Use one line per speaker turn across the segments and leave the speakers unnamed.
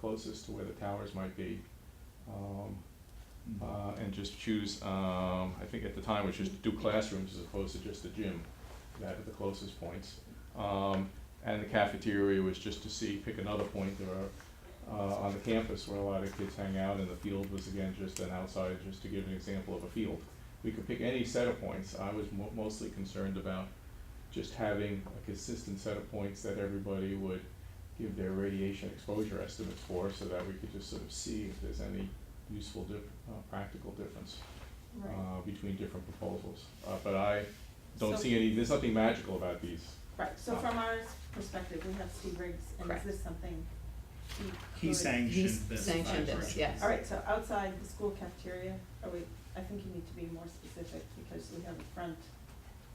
closest to where the towers might be. Um,
Mm.
uh, and just choose, um, I think at the time, which is to do classrooms as opposed to just the gym, that are the closest points. Um, and the cafeteria was just to see, pick another point, there are, uh, on the campus where a lot of kids hang out, and the field was again just an outside, just to give an example of a field. We could pick any set of points, I was mo- mostly concerned about just having a consistent set of points that everybody would give their radiation exposure estimates for, so that we could just sort of see if there's any useful, dif- uh, practical difference
Right,
uh, between different proposals. Uh, But I don't
So-
see any, there's nothing magical about these.
right, so from our perspective, we have Steve Riggs, and is
Correct.
this something he
He
could-
sanctioned
He's
this. by
sanctioned this,
direction.
yes.
All right, so outside the school cafeteria, are we, I think you need to be more specific, because we have a front,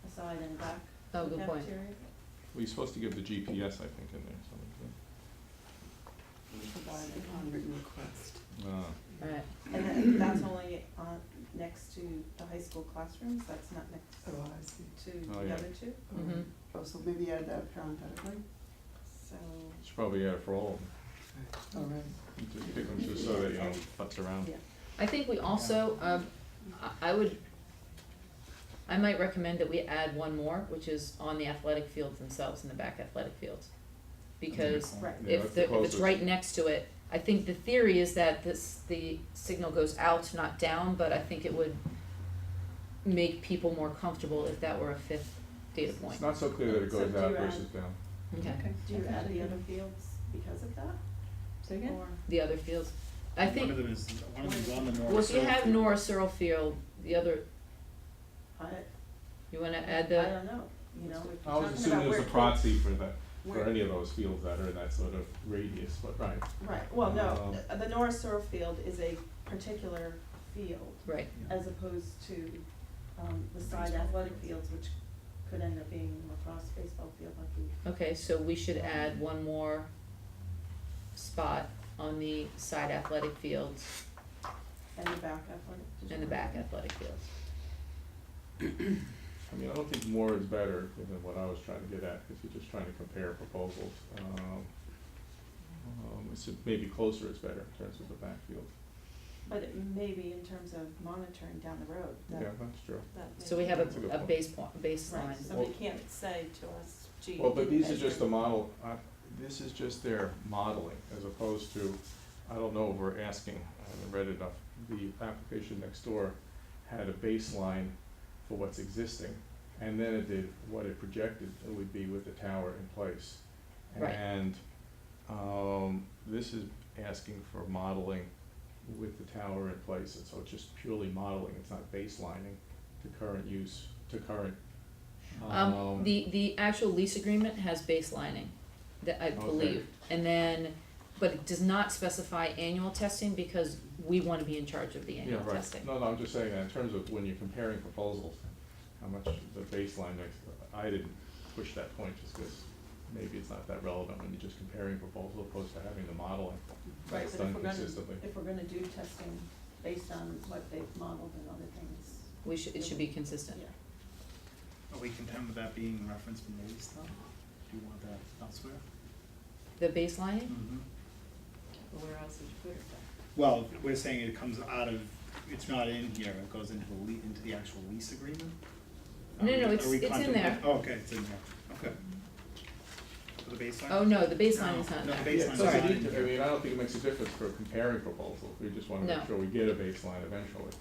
a side, and back
Oh,
to the
good point.
cafeteria.
We're supposed to give the GPS, I think, in there, something.
Provide it
On
on-
written request.
Uh,
Right,
And then that's only on, next to the high school classrooms, that's not
Oh,
next
I see.
to
Oh,
the
yeah.
other two,
Oh,
Mhm.
Oh, so maybe add that parenthetically,
so.
Should probably add it for all of
all right.
them, just pick them just so that, you know, butts around.
Yeah.
I think we also, um, I, I would, I might recommend that we add one more, which is on the athletic fields themselves, in the back athletic fields. Because
That's a good
Right.
point.
Mm-hmm. Yeah, that's the
if the, if it's
closest.
right next to it, I think the theory is that this, the signal goes out, not down, but I think it would make people more comfortable if that were a fifth data point.
It's not so clear that it
So
goes
do uh,
out
you add-
versus down.
Okay,
Do you add the other fields because of that?
so
Or,
the other fields, I
One of
think,
them is, one of them's on the north.
well, if you have
side.
Nora Searle Field, the other,
I,
you wanna
I
add the?
don't know, you know, if
I was
you're talking about
assuming it was
where
a
kids,
proxy for that, for
where-
any of those fields that are in that sort of radius, but right.
Right, well, no,
Um,
the- the Norris Searle Field is a particular field
Right,
Yeah.
as opposed to um the side athletic fields, which could end up being lacrosse baseball field, hockey.
okay, so we should add one more spot on the side athletic fields
and the back athletic. did you
and the
want-
back athletic fields.
I mean, I don't think more is better than what I was trying to get at, because you're just trying to compare proposals. Um, um, it's maybe closer is better in terms of the backfield.
But it may be in terms of monitoring down the road, that
Yeah, that's true.
that may
So we
be-
have
That's a good
a, a
point.
base point, baseline.
Right, somebody can't say to us, gee.
Well, but
you
these are just
measured-
the model, uh, this is just their modeling, as opposed to, I don't know, if we're asking, I haven't read enough. The application next door had a baseline for what's existing, and then it did what it projected it would be with the tower in place.
Right.
And, um, this is asking for modeling with the tower in place, and so it's just purely modeling, it's not baselining to current use, to current,
Um, the, the actual lease agreement has baselining, that I
Okay.
believe. And then, but it does not specify annual testing because we wanna be in charge of the
Yeah,
annual
right.
testing.
No, no, I'm just saying that in terms of when you're comparing proposals, how much the baseline makes, I didn't push that point just because maybe it's not that relevant when you're just comparing proposals opposed to having the modeling.
Right,
That's
but if
done
we're gonna-
consistently.
If we're gonna do testing based on what they've modeled and other things,
We should, it should be consistent.
yeah.
Are we content with that being referenced in the lease though? Do you want that elsewhere?
The baselining?
Well, Where else would you put it?
Well, we're saying it comes out of, it's not in here, it goes into the lea- into the actual lease agreement? Are
No,
we-
no,
are
it's-
we
it's in
content-
there.
Oh, okay, it's in there, okay. For the baseline?
Oh, no, the baseline is not
No,
there.
the baseline
Yeah,
is
so I
not in
mean, I
here.
mean, I don't think it makes a difference for comparing proposals. We just want to
No.
make sure we get a baseline eventually.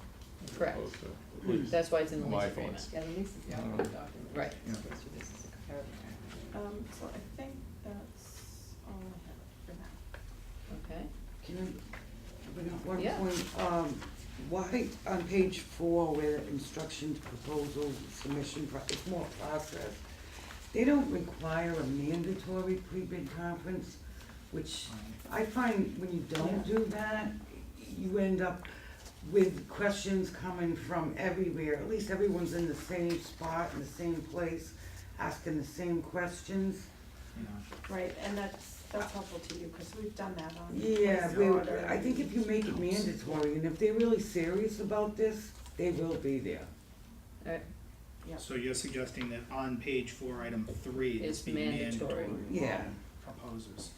as
Correct.
opposed to at least.
That's why it's in the
My
lease agreement.
thoughts.
Yeah, the lease is
the operative Um,
document.
right.
Yeah.
So this is a comparative.
Um, so I think that's all I have for now.
Okay,
Can I, bring up one
Yeah.
point, um, why on page four where the instruction to proposal submission, pro- it's more process. They don't require a mandatory pre-bid conference, which I find when you don't do that, you end up with questions coming from everywhere. At least everyone's in the same spot, in the same place, asking the same questions.
Yeah.
Right, and that's, that's helpful to you, because we've done that on.
Yeah,
place
we,
order.
I think if you make it mandatory, and if they're really serious about this, they will be there.
alright,
Yep.
So you're suggesting that on page four, item three, this
It's
be mandatory
mandatory.
for all
Yeah.
proposers.